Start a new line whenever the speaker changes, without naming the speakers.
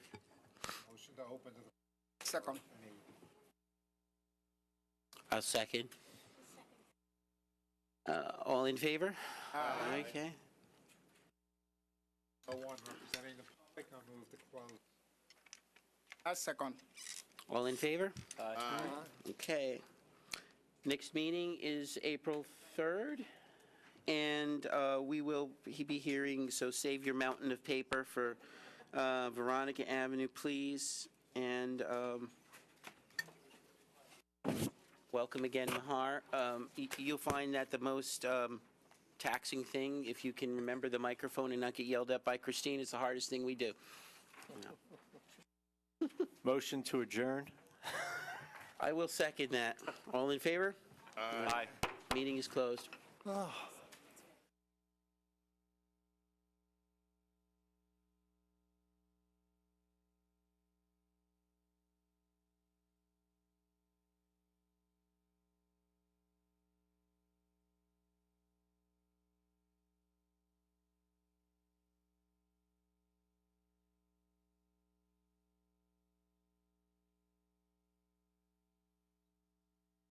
agenda open to the
Second.
I'll second. Uh, All in favor? Okay.
no one representing the public. I move to close.
I second.
All in favor? Okay. Next meeting is April 3rd, and uh, we will he- be hearing, so save your mountain of paper for uh, Veronica Avenue, please, and um, welcome again, Mahar. Um, y- You'll find that the most um, taxing thing, if you can remember the microphone and not get yelled at by Christine, is the hardest thing we do.
Motion to adjourn?
I will second that. All in favor?
Aye.
Meeting is closed.